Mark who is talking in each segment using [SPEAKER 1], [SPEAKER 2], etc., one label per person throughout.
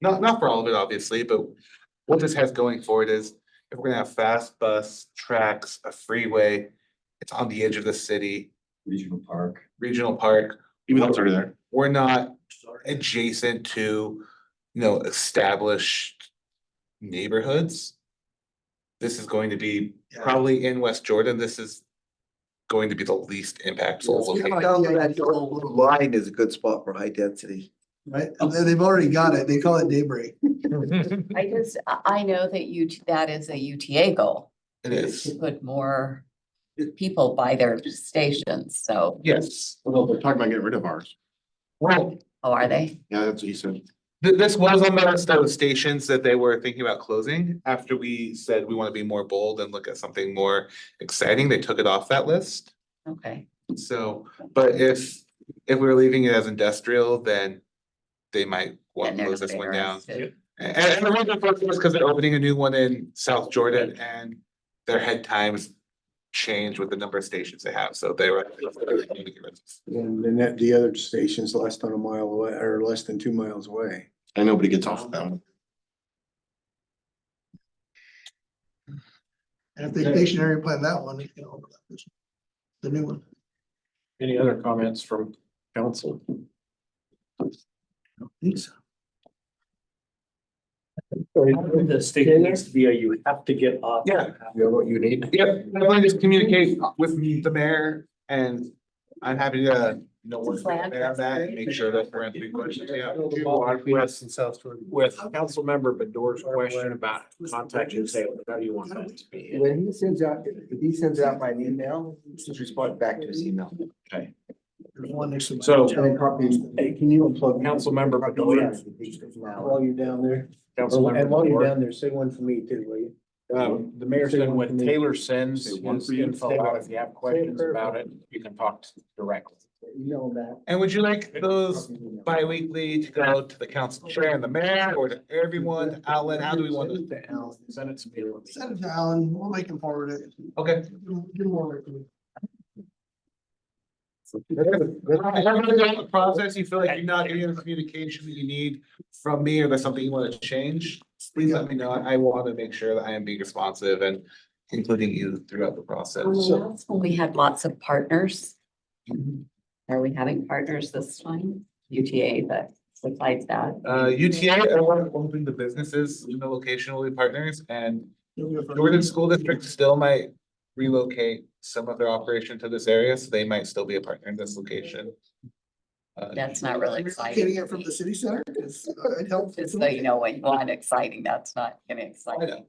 [SPEAKER 1] Not, not for all of it, obviously, but what this has going forward is if we're gonna have fast bus tracks, a freeway, it's on the edge of the city,
[SPEAKER 2] regional park.
[SPEAKER 1] regional park.
[SPEAKER 3] Even though it's already there.
[SPEAKER 1] We're not adjacent to, you know, established neighborhoods. This is going to be probably in West Jordan. This is going to be the least impactful. location.
[SPEAKER 4] Down to that dark blue
[SPEAKER 2] Line is a good spot for high density.
[SPEAKER 4] Right, and they- they've already got it, they call it daybreak.
[SPEAKER 5] I just, I, I know that you, that is a UTA goal,
[SPEAKER 1] It
[SPEAKER 5] is
[SPEAKER 1] is,
[SPEAKER 5] to put more people by their stations, so,
[SPEAKER 1] yes.
[SPEAKER 3] Well, they're talking about getting rid of ours.
[SPEAKER 1] Well,
[SPEAKER 5] oh, are they?
[SPEAKER 3] Yeah, that's what he said.
[SPEAKER 1] Th- this was on the list of stations that they were thinking about closing after we said we want to be more bold and look at something more exciting. They took it off that list.
[SPEAKER 5] Okay.
[SPEAKER 1] So, but if, if we we're leaving it as industrial, then they might want
[SPEAKER 5] Then
[SPEAKER 1] to
[SPEAKER 5] they're
[SPEAKER 1] close
[SPEAKER 5] not
[SPEAKER 1] this one down.
[SPEAKER 5] interested.
[SPEAKER 1] A- And, and the reason for it was because they're opening a new one in South Jordan and their head times change with the number of stations they have. So they were.
[SPEAKER 6] And then that, the other station's less than a mile away, or less than two miles away.
[SPEAKER 3] And nobody gets off of that one.
[SPEAKER 4] And if they stationary plan that one, it's gonna overlap this, the new one.
[SPEAKER 7] Any other comments from council?
[SPEAKER 4] I don't think so.
[SPEAKER 8] The state needs to be, a you have to get off.
[SPEAKER 1] Yeah.
[SPEAKER 6] You know what you need?
[SPEAKER 1] Yep, definitely just communicate with me, the mayor, and I'm happy to, you know, work with the mayor on that and make sure that we're answering questions, yeah.
[SPEAKER 7] Yes, in South Jordan. With Councilmember Bedore's question about contacting Salem, how do you want that to be?
[SPEAKER 2] When he sends out, if he sends out my email, just respond back to his email.
[SPEAKER 4] There's one next to.
[SPEAKER 7] So-
[SPEAKER 2] And then copy, hey, can you unplug?
[SPEAKER 7] Councilmember Bedoya.
[SPEAKER 2] Now.
[SPEAKER 6] While you're down there, or-
[SPEAKER 7] Councilmember
[SPEAKER 6] and while you're
[SPEAKER 7] Bedore.
[SPEAKER 6] down there, say one for me too, will you?
[SPEAKER 7] Um, the mayor said when Taylor sends
[SPEAKER 3] Say one
[SPEAKER 7] his
[SPEAKER 3] for you.
[SPEAKER 7] info out, if you have questions about it, you can talk directly.
[SPEAKER 6] Email that.
[SPEAKER 1] And would you like those bi-weekly to go to the council chair and the mayor, or to everyone, outlet, how do we want to?
[SPEAKER 7] Send it to me.
[SPEAKER 4] Send it to Alan, we'll make him forward it.
[SPEAKER 1] Okay.
[SPEAKER 4] Give him- give him one.
[SPEAKER 1] Has everybody done the Process, you feel like you're not getting the communication that you need from me, or there's something you want to change, please let me know, I want to make sure that I am being responsive and including you throughout the process.
[SPEAKER 5] Well, that's When we had lots of partners.
[SPEAKER 1] Mm-hmm.
[SPEAKER 5] Are we having partners this time? UTA, but besides that,
[SPEAKER 1] Uh, UTA, uh, we're hoping the businesses in the location will be partners and Jordan School District still might relocate some of their operation to this area, so they might still be a partner in this location. Uh,
[SPEAKER 5] that's not really exciting.
[SPEAKER 4] Getting it from the city center, because it helps.
[SPEAKER 5] Just so you know, when you want exciting, that's not gonna excite
[SPEAKER 1] I
[SPEAKER 5] me.
[SPEAKER 1] know.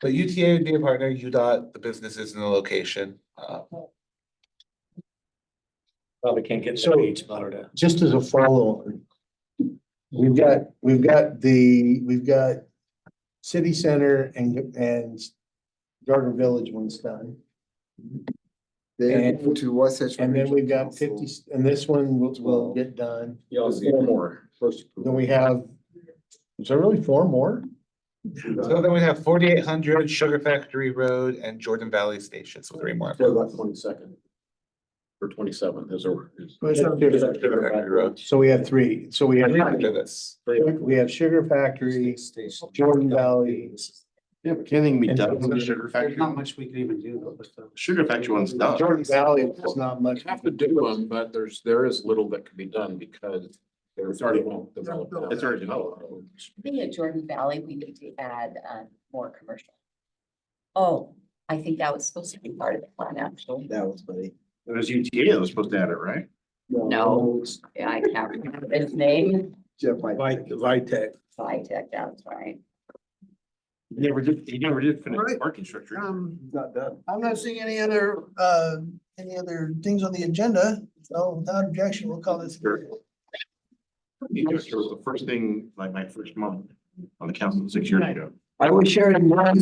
[SPEAKER 1] But UTA would be a partner, UDOT, the businesses in the location, uh,
[SPEAKER 8] Probably can't get
[SPEAKER 6] So-
[SPEAKER 8] to beach, Florida.
[SPEAKER 6] Just as a follow on. We've got, we've got the, we've got city center and, and Garden Village one's done.
[SPEAKER 2] They
[SPEAKER 6] And-
[SPEAKER 2] go to Wasatch.
[SPEAKER 6] And then we've got
[SPEAKER 2] Regional
[SPEAKER 6] fifty,
[SPEAKER 2] Council.
[SPEAKER 6] and this one will, will get done.
[SPEAKER 2] Yeah, I'll see.
[SPEAKER 6] Four more. Then we have, is there really four more?
[SPEAKER 1] so then we have forty-eight hundred Sugar Factory Road and Jordan Valley Station, so three more.
[SPEAKER 7] Twenty-second. Or twenty-seven is over.
[SPEAKER 1] Sugar Factory Road.
[SPEAKER 6] So we have three. So we have,
[SPEAKER 1] After this.
[SPEAKER 6] we have Sugar Factory, Jordan Valley.
[SPEAKER 3] Yeah, but can anything be
[SPEAKER 6] And
[SPEAKER 3] done with the
[SPEAKER 6] Jordan-
[SPEAKER 3] sugar factory?
[SPEAKER 8] much we can even do though with the.
[SPEAKER 3] Sugar factory one's done.
[SPEAKER 6] Jordan Valley is not much.
[SPEAKER 7] Have to do them, but there's, there is little that can be done because there's already won't develop.
[SPEAKER 3] It's already developed.
[SPEAKER 5] I think at Jordan Valley, we need to add um more commercial. Oh, I think that was supposed to be part of the plan, actually.
[SPEAKER 2] That was funny.
[SPEAKER 3] It was UTA that was supposed to add it, right?
[SPEAKER 5] No, Yeah, I can't remember his name.
[SPEAKER 2] Jeff, I.
[SPEAKER 6] Vitec.
[SPEAKER 5] Vitek, that's right.
[SPEAKER 3] He never did, he never did finish the
[SPEAKER 4] Right.
[SPEAKER 3] parking structure.
[SPEAKER 4] Um,
[SPEAKER 2] Not done.
[SPEAKER 4] I'm not seeing any other, uh, any other things on the agenda, so without objection, we'll call this.
[SPEAKER 3] Sure. It was the first thing, like my first month on the council six years ago.
[SPEAKER 2] I was sharing one